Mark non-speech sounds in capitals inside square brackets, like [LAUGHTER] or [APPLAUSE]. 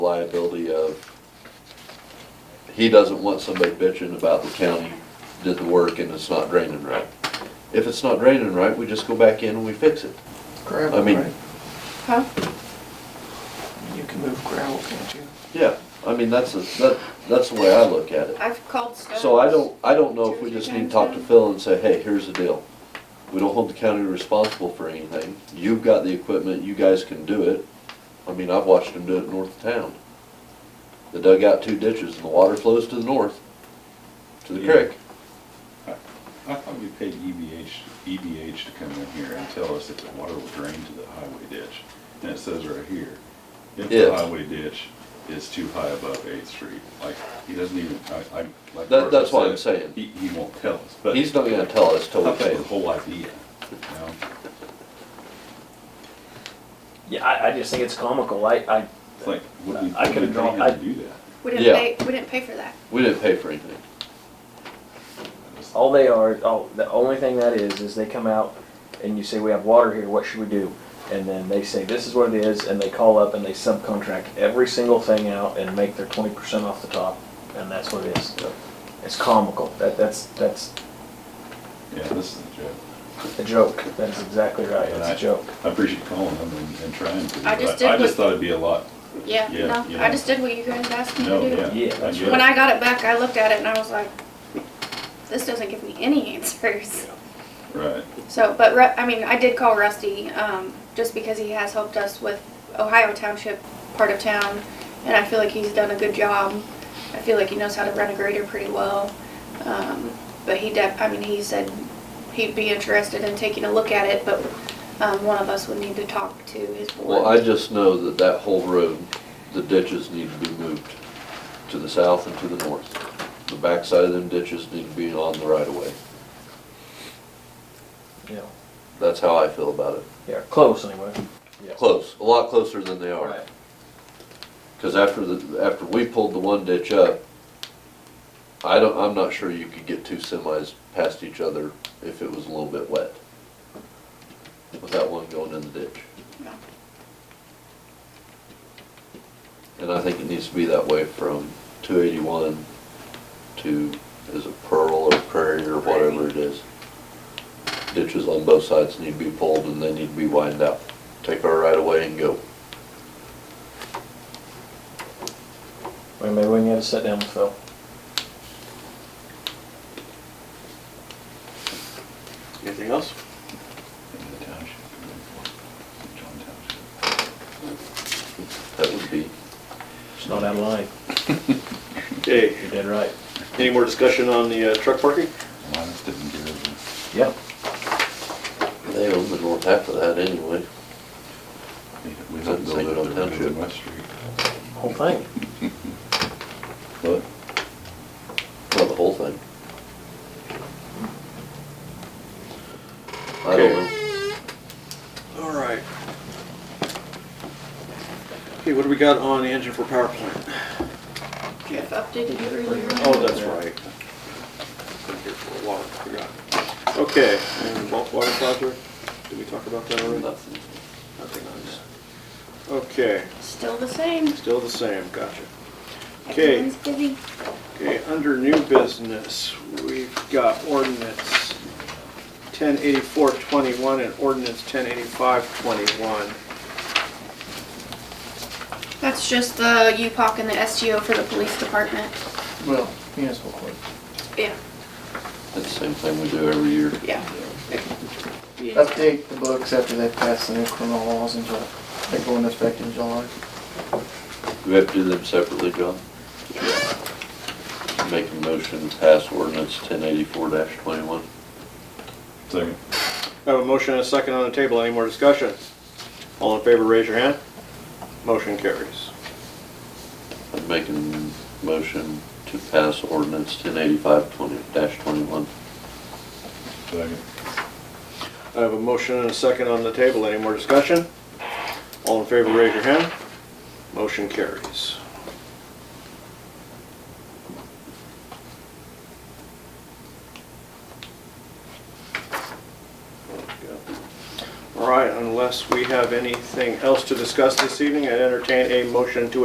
liability of, he doesn't want somebody bitching about the county did the work and it's not draining right. If it's not draining right, we just go back in and we fix it. I Gravel, mean- right? Huh? You can move gravel, can't you? Yeah, I mean, that's, a- that, that's the way I look at it. I've called Stones. So I don't, I don't know if we just need to talk to Phil and say, hey, here's the deal. We don't hold the county responsible for anything. You've got the equipment, you guys can do it. I mean, I've watched them do it north of town. They dug out two ditches and the water flows to the north, to the Yeah. creek. I thought we paid E EBH, EBH to come in here and tell us if the water will drain to the highway ditch. And it says right here, if the If. highway ditch is too high above Eighth Street, like, he doesn't even, I, I, That- like. Martha that's what I'm saying. said, He, he won't tell us, but. He's not gonna tell us till I we thought pay that was him. the whole idea, you know? Yeah, I, I just think it's comical. I, I, It's like, would we, I would could've we pay drawn- him I- to do that? We didn't Yeah. pay, we didn't pay for that. We didn't pay for anything. all they are, all, the only thing that is, is they come out and you say, we have water here, what should we do? And then they say, this is what it is, and they call up and they subcontract every single thing out and make their twenty percent off the top, and that's what it is. It's comical. That, that's, that's Yeah, this is a joke. a joke. That's exactly right. It's a joke. I appreciate calling him and, and trying to, I just but did I just what- thought it'd be a lot, Yeah, Yeah, no, yeah. I just did what you guys asked me no, to yeah. do. Yeah, that's get right. it. When I got it back, I looked at it and I was like, this doesn't give me any [LAUGHS] answers. Right, So, but Ru- I mean, I did call Rusty, um, just because he has helped us with Ohio Township, part of town, and I feel like he's done a good job. I feel like he knows how to run a grader pretty well. Um, but he def, I mean, he said he'd be interested in taking a look at it, but, um, one of us would need to talk to his board. Well, I just know that that whole road, the ditches need to be moved to the south and to the north. The backside of them ditches need to be on the right of way. Yeah, That's how I feel about it. yeah, close anyway. Yeah. Close, a lot closer than they are. Right. Because after the, after we pulled the one ditch up, I don't, I'm not sure you could get two semis past each other if it was a little bit wet. Without one going in the ditch. No. And I think it needs to be that way from two eighty-one to, is it Pearl or Prairie or whatever it is. Ditches on both sides need to be pulled and they need to be widened out. Take our right away and go. Well, Maybe we can get a sit down with Phil. Anything else? in the township, John Township. That would be It's not out of line. Okay, You're dead right. any more discussion on the uh, truck parking? Linus didn't get it. Yeah. They own the north half of that anyway. We It's on don't build it on Township. Township West Street. Whole thing. But Not the whole thing. I don't know. All right. Okay, what do we got on the engine for power plant? Jeff updated you earlier. Oh, that's right. Been here for a while, forgot. Okay, and wa- water closet, did we talk about that already? Nothing. Nothing on that. Okay, Still the same. still the same, gotcha. Okay. Everyone's busy. Okay, under new business, we've got ordinance ten eighty-four twenty-one and ordinance ten eighty-five twenty-one. That's just uh, the UPOC and the STO for the police department. Well, municipal court. Yeah, It's the same thing we do every year. yeah. Update the books after they pass the new criminal laws in July. They go into effect in July. Do we have to do them separately, John? Make a motion to pass ordinance ten eighty-four twenty-one. Second. I have a motion and a second on the table, any more discussion? All in favor, raise your hand. Motion carries. I'm making a motion to pass ordinance ten eighty-five twenty, twenty-one. Second. I have a motion and a second on the table, any more discussion? All in favor, raise your hand. Motion carries. All right, unless we have anything else to discuss this evening, I entertain a motion to